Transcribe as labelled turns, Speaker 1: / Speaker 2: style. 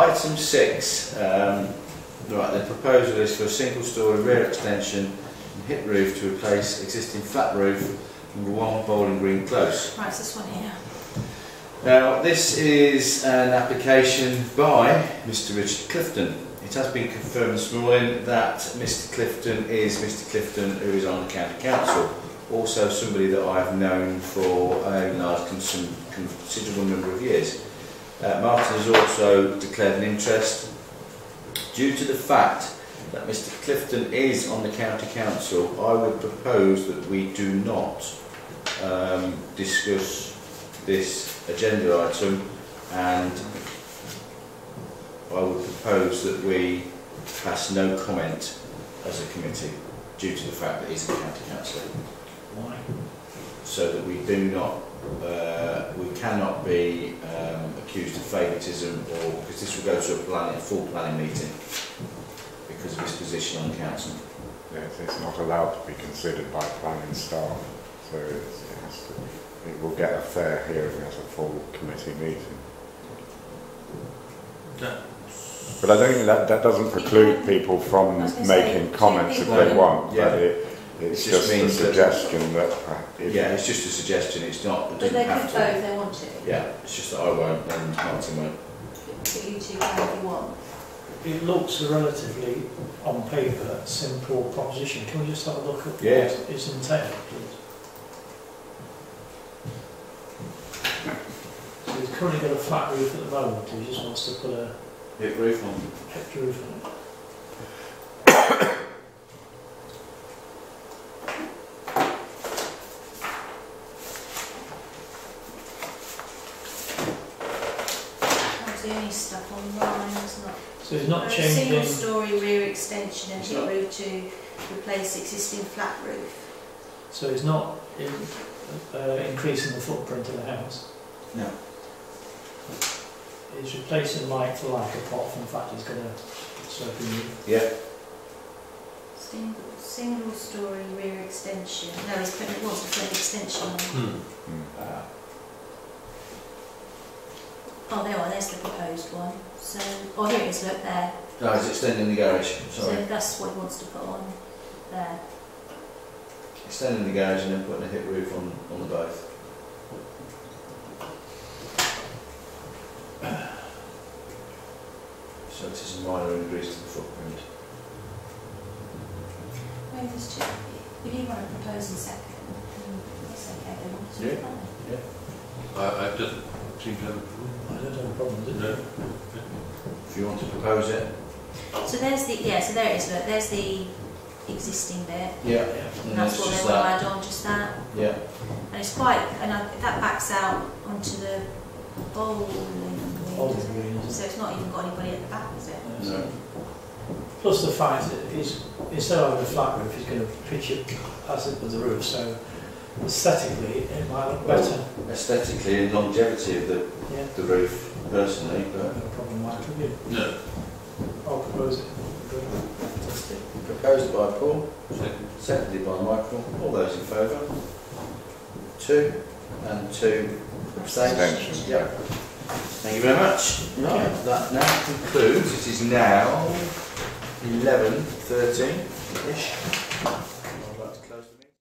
Speaker 1: item six, um, right, the proposal is for a single story rear extension and hip roof to replace existing flat roof number one Bowling Green Close.
Speaker 2: Right, it's this one here.
Speaker 1: Now, this is an application by Mr Richard Clifton. It has been confirmed this morning that Mr Clifton is Mr Clifton who is on the County Council. Also somebody that I've known for a large cons- considerable number of years. Uh, Martin has also declared an interest due to the fact that Mr Clifton is on the county council. I would propose that we do not um, discuss this agenda item and I would propose that we pass no comment as a committee due to the fact that he's a county councillor.
Speaker 3: Why?
Speaker 1: so that we do not, uh, we cannot be um, accused of favouritism or, because this will go to a planning, a full planning meeting because of his position on council.
Speaker 4: Yes, it's not allowed to be considered by planning staff, so it's, it's, it will get a fair hearing at a full committee meeting.
Speaker 3: That-
Speaker 4: But I don't think that, that doesn't preclude people from
Speaker 2: I was gonna say,
Speaker 4: making
Speaker 2: two
Speaker 4: comments if
Speaker 2: people.
Speaker 4: they want,
Speaker 1: Yeah.
Speaker 4: but it, it's
Speaker 1: It just
Speaker 4: just a
Speaker 1: means that-
Speaker 4: suggestion that, uh, if-
Speaker 1: Yeah, it's just a suggestion, it's not, it
Speaker 2: But
Speaker 1: doesn't
Speaker 2: they could vote
Speaker 1: have to.
Speaker 2: if they want to.
Speaker 1: Yeah, it's just that I won't and Martin won't.
Speaker 2: But you two can if you want.
Speaker 3: It looks a relatively, on paper, simple proposition. Can we just have a look at what
Speaker 1: Yeah.
Speaker 3: is entailed, please? So he's currently got a flat roof at the moment, he just wants to put a
Speaker 1: Hit roof on.
Speaker 3: extra roof on it.
Speaker 2: That's the only stuff online, it's not.
Speaker 3: Uh, So he's not
Speaker 2: For a single
Speaker 3: changing,
Speaker 2: story rear extension and
Speaker 1: It's
Speaker 2: hip
Speaker 1: not-
Speaker 2: roof to replace existing flat roof.
Speaker 3: so he's not in, uh, increasing the footprint of the house.
Speaker 1: No.
Speaker 3: He's replacing like for like, apart from the fact he's gonna slip a new
Speaker 1: Yeah,
Speaker 2: Single, single story rear extension. No, he's putting, he wants to put an extension on.
Speaker 4: Hmm.
Speaker 1: uh,
Speaker 2: Oh, there one, there's the proposed one. So, oh, here it is, look there.
Speaker 1: no, it's extending the garage,
Speaker 2: So
Speaker 1: sorry.
Speaker 2: that's what he wants to put on there.
Speaker 1: Extending the garage and then putting a hip roof on, on the both. So it is a minor increase to the footprint.
Speaker 2: Maybe there's two. If you want to propose and second, then that's okay, then we'll just.
Speaker 1: Yeah.
Speaker 2: vote.
Speaker 5: I, I just seem to have a problem.
Speaker 3: I don't have a problem with it.
Speaker 5: No.
Speaker 1: If you want to propose it?
Speaker 2: So there's the, yeah, so there it is, look, there's the existing bit.
Speaker 1: Yeah.
Speaker 2: And that's what they want to add on, just that.
Speaker 1: Yeah.
Speaker 2: And it's quite, and I, that backs out onto the bowling
Speaker 3: All
Speaker 2: green.
Speaker 3: the greens.
Speaker 2: So it's not even got anybody at the back, is it?
Speaker 1: No.
Speaker 3: Plus the fact that he's, instead of having a flat roof, he's going to pitch it as it was the roof, so aesthetically it might look better.
Speaker 1: Aesthetically and longevity of the,
Speaker 3: Yeah,
Speaker 1: the roof personally,
Speaker 3: no
Speaker 1: but
Speaker 3: problem, Mike, have you?
Speaker 5: No,
Speaker 3: I'll propose it.
Speaker 1: proposed by Paul,
Speaker 5: second.
Speaker 1: seconded by Michael. All those in favour? Two and two abstained.
Speaker 4: Abstentions.
Speaker 1: Yeah. Thank you very much. Right, that now concludes. It is now eleven thirteen ish.